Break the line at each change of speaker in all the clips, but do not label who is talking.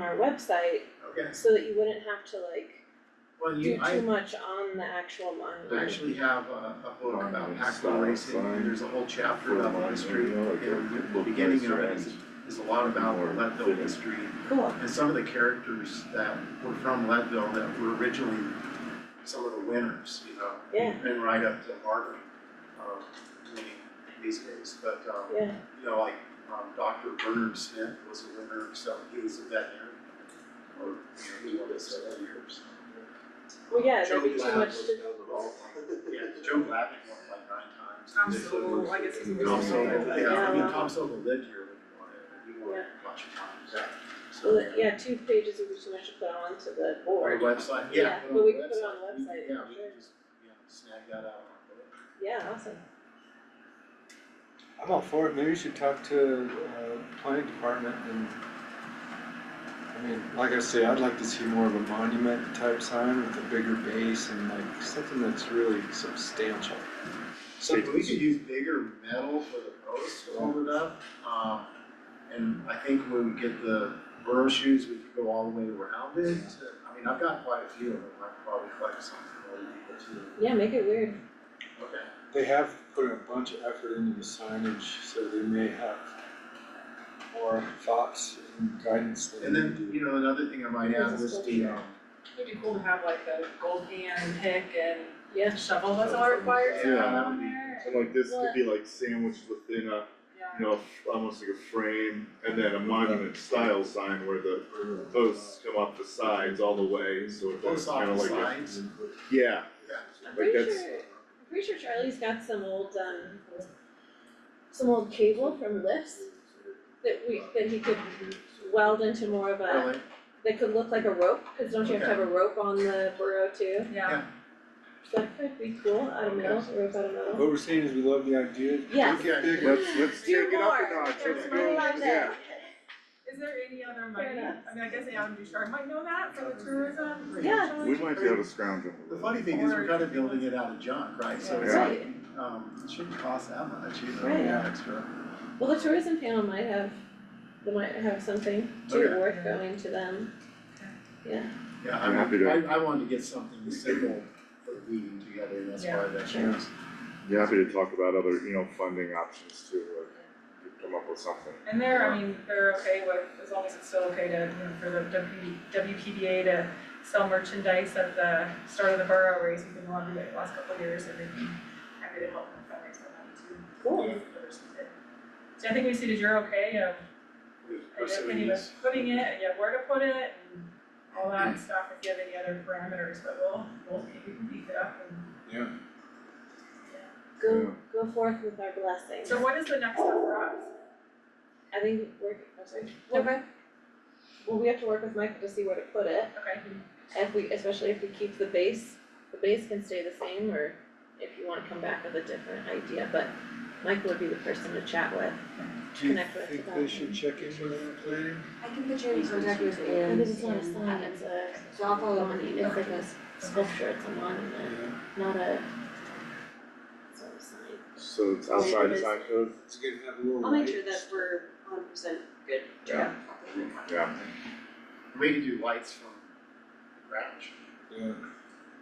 on our website,
Okay,
so that you wouldn't have to like
well,
do
you,
too
I
much on the actual monument.
actually have a, a book about
Fine,
Pac-Man
stop,
racing,
fine.
and there's a whole chapter about the history, and the
Look,
beginning of it
restaurants.
is, is a lot about
More
Leadville
fitting.
history.
Cool,
And some of the characters that were from Leadville that were originally some of the winners, you know,
yeah,
and right up to Marvin, um, winning these days, but, um,
yeah,
you know, like, um, Dr. Bernard Smith was a winner, so he was a veterinarian. Or, you know, he won this several years.
well, yeah,
Joe
that'd be too
Glad
much
was
to,
another role. Yeah, Joe Glavine won like nine times.
Tom Sowell, I guess he's a
Tom
person.
Sowell, yeah, I mean,
Yeah.
Tom Sowell lived here when he won it, and he won it a bunch of times. So,
well, yeah, two pages would be too much to put on to the
Our
board,
website,
Yeah,
yeah.
but we can put it on the website,
Yeah, we
sure.
can just, you know, snag that out.
yeah, awesome.
I'm all for it, maybe you should talk to uh planning department and I mean, like I say, I'd like to see more of a monument type sign with a bigger base and like something that's really substantial.
So we could use bigger metal for the posts to hold it up, um, and I think when we get the burrow shoes, we could go all the way around it. to- I mean, I've got quite a few of them, I could probably collect some for other people too.
Yeah, make it weird,
Okay.
They have put a bunch of effort into the signage, so they may have more thoughts and guidance than
And
we
then,
do.
you know, another thing I might add was the, um,
It'd be cool to have like a gold hand and pick and
yeah,
shovel that's all required to
Yeah,
have
that
on
would be-
there.
And like this could be like sandwiched within a, you know, almost like a frame, and then a monument style sign where the posts come off the sides all the way, so it's
post
kind of
office
like a,
signs.
yeah,
I'm
like
pretty
that's,
sure, I'm pretty sure Charlie's got some old, um, some old cable from lifts that we, that he could weld into more of a,
Really,
that could look like a rope, cause don't you have to have a rope on the burrow too?
Yeah, yeah,
So that could be cool, out of metal, a rope out of metal.
What we're saying is we love the idea.
Yes.
Get bigger.
let's, let's take
Do
it up a
more.
notch,
There's
let's
money
go,
out
yeah.
there.
is there any other
Fair
money,
enough.
I mean, I guess Adam Bouchard might know that for the tourism.
Yeah.
We might be able to scrounge them.
the funny thing is, we're kind of building it out of junk, right, so it's
Yeah.
like, um, it shouldn't cost that much, you know,
Right.
extra.
Well, the tourism panel might have, they might have something
Okay.
too worth going to them.
Yeah,
I'm
I
happy
mean,
to-
I I wanted to get something simple for leading together, and that's why that
Yeah.
changed.
Yeah, happy to talk about other, you know, funding options too, like, you come up with something.
And they're, I mean, they're okay with, as long as it's still okay to, you know, for the W, WPDA to sell merchandise at the start of the borough race, we've been wanting it the last couple of years, and they'd be happy to help them fundraise for that too.
Cool.
if others did. So I think we see that you're okay of, I guess, when you were putting it, and you have where to put it, and all that stuff, if you have any other parameters, but we'll, we'll maybe beef it up and.
Yeah.
Go, go forth with our blessings.
So what is the next step for us?
I think we're, I'm sorry, well, well, we have to work with Michael to see where to put it.
Okay,
If we, especially if we keep the base, the base can stay the same, or if you wanna come back with a different idea, but Michael would be the person to chat with,
Do you
connect with
think
about
they
it.
should check in with planning?
I can put you in contact with
I
Anne.
think it's not a sign, it's a,
So I'll follow up on
monument, it's
email.
like a s- sculpture, it's a monument,
Yeah,
not a, it's not a sign.
So it's outside the sign code,
it's gonna have a little
I'll make sure
lights.
that we're hundred percent good.
Yeah. yeah.
We could do lights from the ground.
Yeah.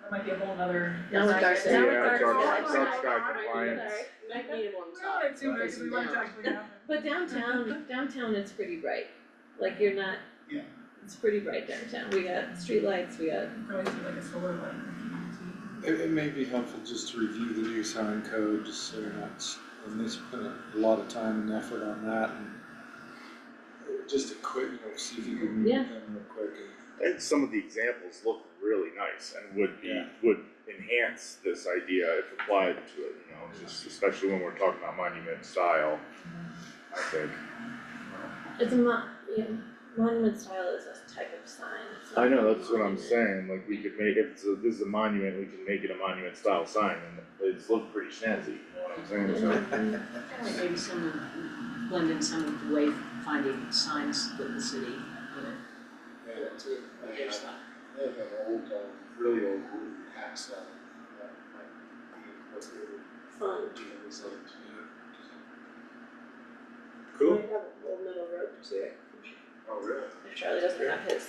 that might be a whole nother.
Now with Darcy.
Now with
Yeah,
Darcy.
dark-
Oh,
dark
sorry.
sky
Sorry.
compliance.
Might need one
We're
stop.
on it too, because we want to actually have it.
But downtown, downtown it's pretty bright, like you're not.
Mm-hmm. Yeah.
It's pretty bright downtown, we got streetlights, we got,
Probably do like a solar light.
It, it may be helpful just to review the new sign code, just so you're not, s- and they spend a lot of time and effort on that and uh, just a quick, you know, see if you can
Yeah.
meet them real quick and.
And some of the examples look really nice and would be, would enhance this idea if applied to it, you know, just especially when we're talking about monument style. I think,
it's a mon, yeah, monument style is a type of sign, it's not
I know, that's what I'm
monument.
saying, like we could make, if it's a, this is a monument, we can make it a monument style sign and it's looked pretty snazzy, you know what I'm saying, so.
Mhm.
Kinda Maybe some, of- blend in some of the wayfinding signs that the city put
Yeah.
it to their stuff.
They have an old, um, really old wooden hack saw that might be incorporated
Fun.
into the design too.
Might have a little middle rope to it.
Oh, really?
Charlie doesn't have his.